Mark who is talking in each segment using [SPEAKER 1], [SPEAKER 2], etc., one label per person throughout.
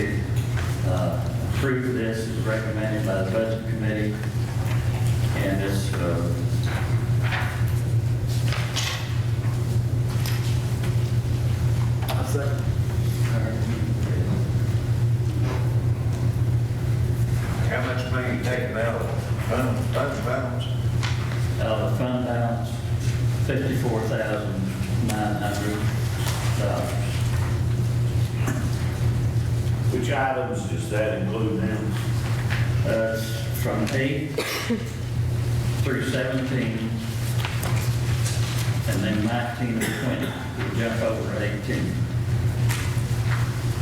[SPEAKER 1] approve Uh, this as recommended by the budget committee. And this, uh,
[SPEAKER 2] I second.
[SPEAKER 3] How much money you taking out of fund, fund balance?
[SPEAKER 1] uh, fund balance, fifty-four thousand nine hundred dollars.
[SPEAKER 4] Which items does that include now?
[SPEAKER 1] That's Uh, from eight through seventeen, and then nineteen and twenty, we jump over eighteen.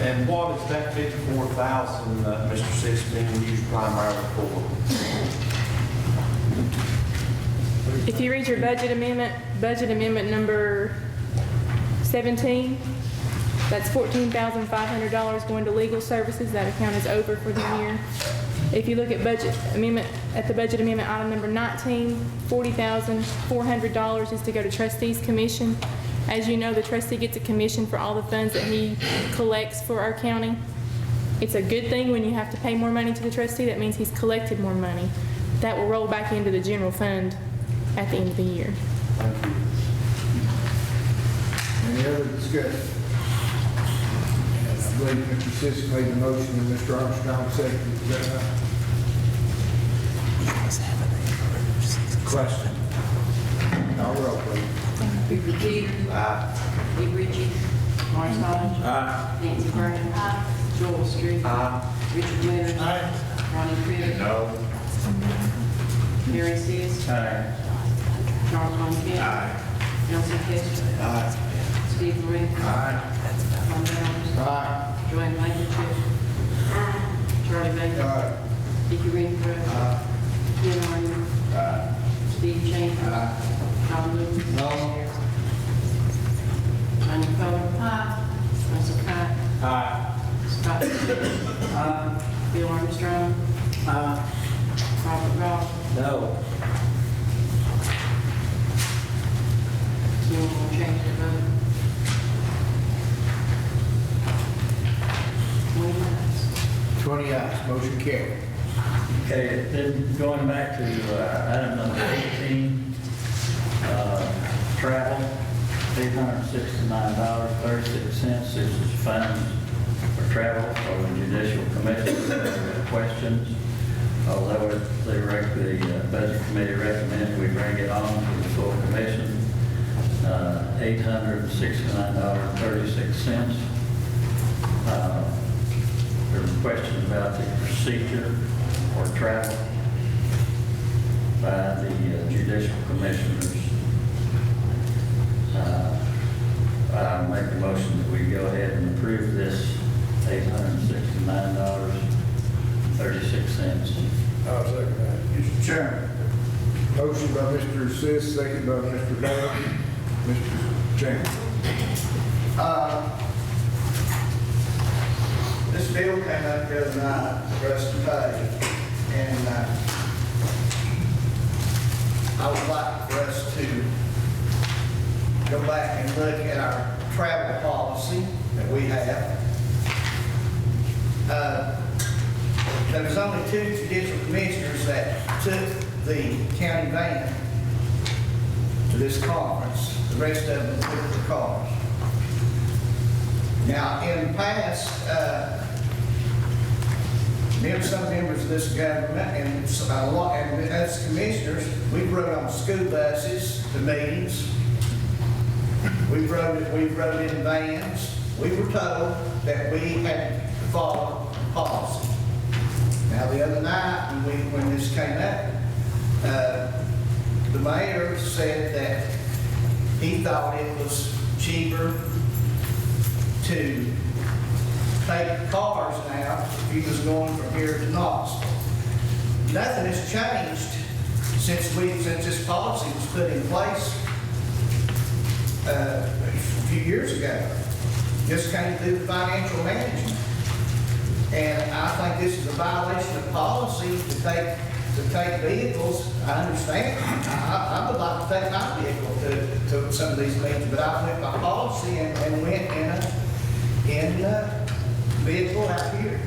[SPEAKER 5] And what is that fifty-four thousand, uh, Mr. Six, being used primarily for?
[SPEAKER 6] If you read your budget amendment, budget amendment number 17, that's $14,500 going to legal services. That account is over for the year. If you look at budget amendment, at the budget amendment item number 19, $40,400 is to go to trustees commission. As you know, the trustee gets a commission for all the funds that he collects for our county. It's a good thing when you have to pay more money to the trustee. That means he's collected more money. That will roll back into the general fund at the end of the year.
[SPEAKER 7] Any other discussion? I believe Mr. Sis made the motion and Mr. Armstrong seconded. Is that right? Question. Call roll, please.
[SPEAKER 8] Hubert Hill. Aye. Lee Ritchie. Lawrence Todd. Nancy Brown. Joel Street. Richard Winters. Ronnie Crivitt.
[SPEAKER 3] No.
[SPEAKER 8] Mary Sis.
[SPEAKER 1] Aye.
[SPEAKER 8] Charles Von Kent. Nelson Hester. Steve Ray. Tom Allen.
[SPEAKER 7] Aye.
[SPEAKER 8] Joanne Lichtenstein. Charlie Baker.
[SPEAKER 7] Aye.
[SPEAKER 8] Dickie Redpath. Ken Arden. Steve Chambers. Don Lewis. Sonia Coler. Russell Cott. Scott Stevens. Bill Armstrong. Robert Goff.
[SPEAKER 2] No.
[SPEAKER 8] Anyone want to change their vote? Twenty ayes.
[SPEAKER 7] Twenty ayes, motion carried.
[SPEAKER 1] Okay, then going back to uh, item number 18, uh, travel, $869.36. This is funds for travel for the judicial commission. If there are Questions, although it- they rec- the uh, budget committee recommends we bring it on to the full commission, uh, $869.36. Uh, there was a question about the procedure or travel by the uh, judicial commissioners. Uh, I make the motion that we go ahead and approve this $869.36.
[SPEAKER 2] I second that.
[SPEAKER 3] Mr. Chairman.
[SPEAKER 7] Motion by Mr. Sis, second by Mr. Dale. Mr. Chambers.
[SPEAKER 9] Uh, This bill came up the other night for us to pay, and uh, I would like for us to go back and look at our travel policy that we have. Uh, There was only two judicial commissioners that took the county van to this conference. The rest of them took the cars. Now, in the past, uh, mem- some members of this government and s- a lot, and as commissioners, we've rode on school buses to meetings. We've rode, we've rode in vans. We were told that we had to follow policy. Now, the other night, when we, when this came up, uh, the mayor said that he thought it was cheaper to take cars now if he was going from here to Knoxville. Nothing has changed since we, since this policy was put in place uh, a few years ago. Just came through financial management. And I think this is a violation of policy to take, to take vehicles. I understand, I, I would like to take my vehicle to, to some of these meetings, but I went by policy and, and went in a, in a vehicle out here.